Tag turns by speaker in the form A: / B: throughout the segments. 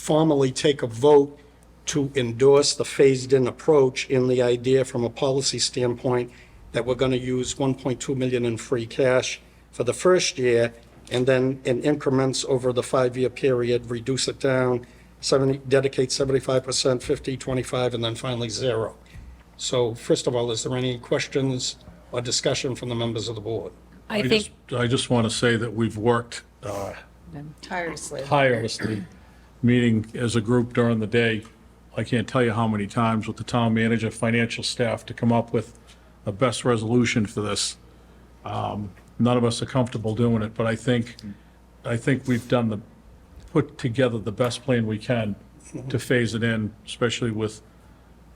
A: formally take a vote to endorse the phased-in approach in the idea from a policy standpoint that we're going to use 1.2 million in free cash for the first year, and then in increments over the five-year period, reduce it down, 70, dedicate 75%, 50, 25, and then finally zero. So first of all, is there any questions or discussion from the members of the board?
B: I
C: I
B: think,
C: just, I just want to say that we've worked uh,
D: tirelessly.
C: tirelessly, meeting as a group during the day. I can't tell you how many times with the town manager, financial staff, to come up with the best resolution for this. Um, None of us are comfortable doing it, but I think, I think we've done the, put together the best plan we can to phase it in, especially with,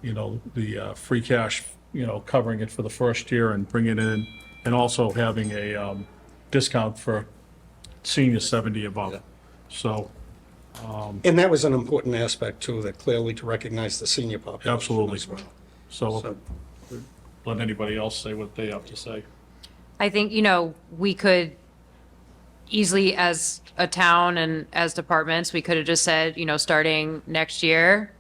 C: you know, the uh, free cash, you know, covering it for the first year and bringing it in, and also having a um, discount for senior 70 above. So,
A: And that was an important aspect too, that clearly to recognize the senior population.
C: absolutely. So
A: So-
C: let anybody else say what they have to say.
B: I think, you know, we could easily, as a town and as departments, we could have just said, you know, starting next year,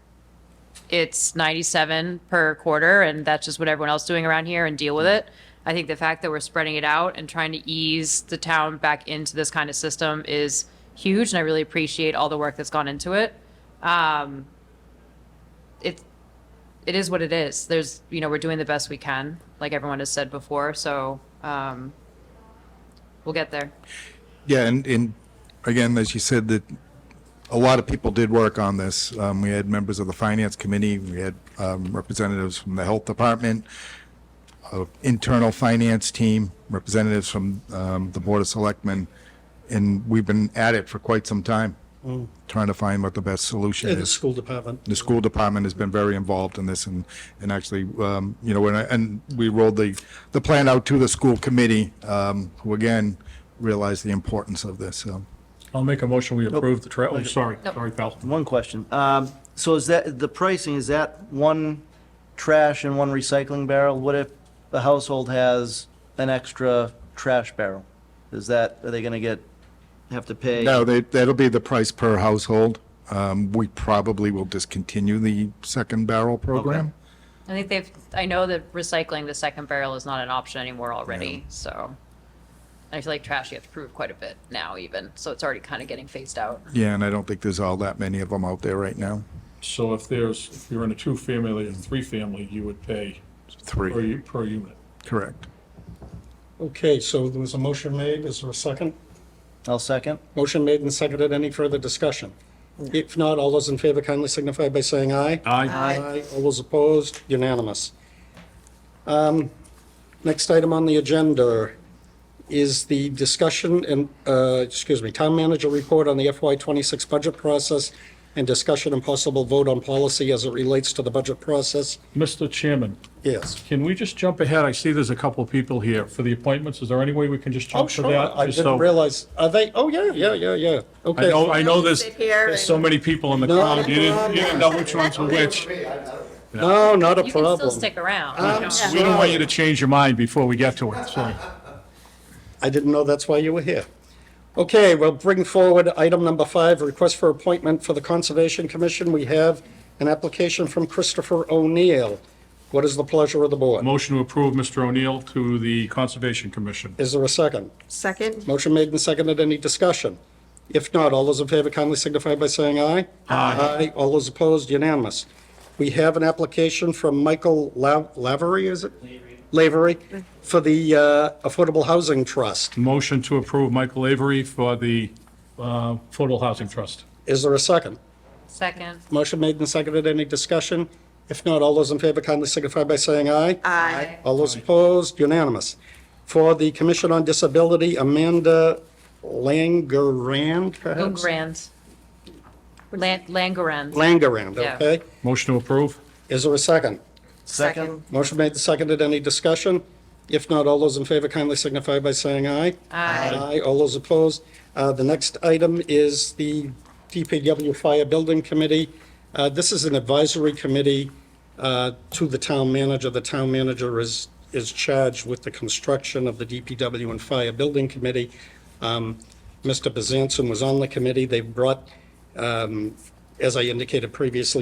B: it's 97 per quarter, and that's just what everyone else is doing around here, and deal with it. I think the fact that we're spreading it out and trying to ease the town back into this kind of system is huge, and I really appreciate all the work that's gone into it. Um, It, it is what it is. There's, you know, we're doing the best we can, like everyone has said before, so um, we'll get there.
E: Yeah, and, and again, as you said, that a lot of people did work on this. Um, we had members of the finance committee, we had, um, representatives from the health department, uh, internal finance team, representatives from, um, the board of selectmen. And we've been at it for quite some time, trying to find what the best solution
A: In the
E: is.
A: school department.
E: The school department has been very involved in this and, and actually, um, you know, and, I- and we rolled the, the plan out to the school committee, um, who again, realized the importance of this, so.
C: I'll make a motion, we approve the trail, oh, sorry, sorry, pal.
F: One question. Um, So is that, the pricing, is that one trash and one recycling barrel? What if the household has an extra trash barrel? Is that, are they going to get, have to pay?
E: No, they, that'll be the price per household. Um, we probably will discontinue the second barrel program.
B: I think they've, I know that recycling the second barrel is not an option anymore already, so. I feel like trash, you have to prove quite a bit now even, so it's already kind of getting phased out.
E: Yeah, and I don't think there's all that many of them out there right now.
C: So if there's, if you're in a two-family and three-family, you would pay per,
E: Three,
C: u- per unit.
E: correct.
A: Okay, so there was a motion made. Is there a second?
F: I'll second.
A: Motion made and seconded. Any further discussion? If not, all those in favor kindly signify by saying aye.
C: Aye.
A: Aye. All those opposed, unanimous. Um, Next item on the agenda is the discussion and, uh, excuse me, town manager report on the FY26 budget process and discussion and possible vote on policy as it relates to the budget process.
C: Mr. Chairman,
A: Yes.
C: can we just jump ahead? I see there's a couple of people here for the appointments. Is there any way we can just
A: Oh,
C: jump to
A: sure.
C: that?
A: I
C: Just
A: didn't
C: so-
A: realize, are they, oh, yeah, yeah, yeah, yeah.
C: I
A: Okay.
C: know, I know there's,
D: Sit here
C: there's so
D: and-
C: many people in the
A: No,
C: crowd. You
A: no,
C: didn't, you didn't know which ones were which.
A: No, not a
B: You
A: problem.
B: can still stick around. you know.
C: We don't want you to change your mind before we get to it, so.
A: I didn't know that's why you were here. Okay, we'll bring forward item number five, request for appointment for the Conservation Commission. We have an application from Christopher O'Neill. What is the pleasure of the board?
C: Motion to approve Mr. O'Neill to the Conservation Commission.
A: Is there a second?
D: Second,
A: Motion made and seconded. Any discussion? If not, all those in favor kindly signify by saying aye. Aye. All those opposed, unanimous. We have an application from Michael La- Lavery, is it? Lavery, for the uh, Affordable Housing Trust.
C: Motion to approve Michael Avery for the uh, Affordable Housing Trust.
A: Is there a second?
B: Second,
A: Motion made and seconded. Any discussion? If not, all those in favor kindly signify by saying aye.
D: Aye.
A: All those opposed, unanimous. For the Commission on Disability, Amanda Langerand,
B: go
A: perhaps?
B: grand. Lan- Langerand.
A: Langerand,
B: Yeah.
A: okay.
C: Motion to approve?
A: Is there a second?
D: second,
A: Motion made and seconded. Any discussion? If not, all those in favor kindly signify by saying aye.
B: Aye.
A: Aye. All those opposed. Uh, The next item is the DPW Fire Building Committee. Uh, This is an advisory committee uh, to the town manager. The town manager is, is charged with the construction of the DPW and Fire Building Committee. Um, Mr. Bezanson was on the committee. They brought um, as I indicated previously,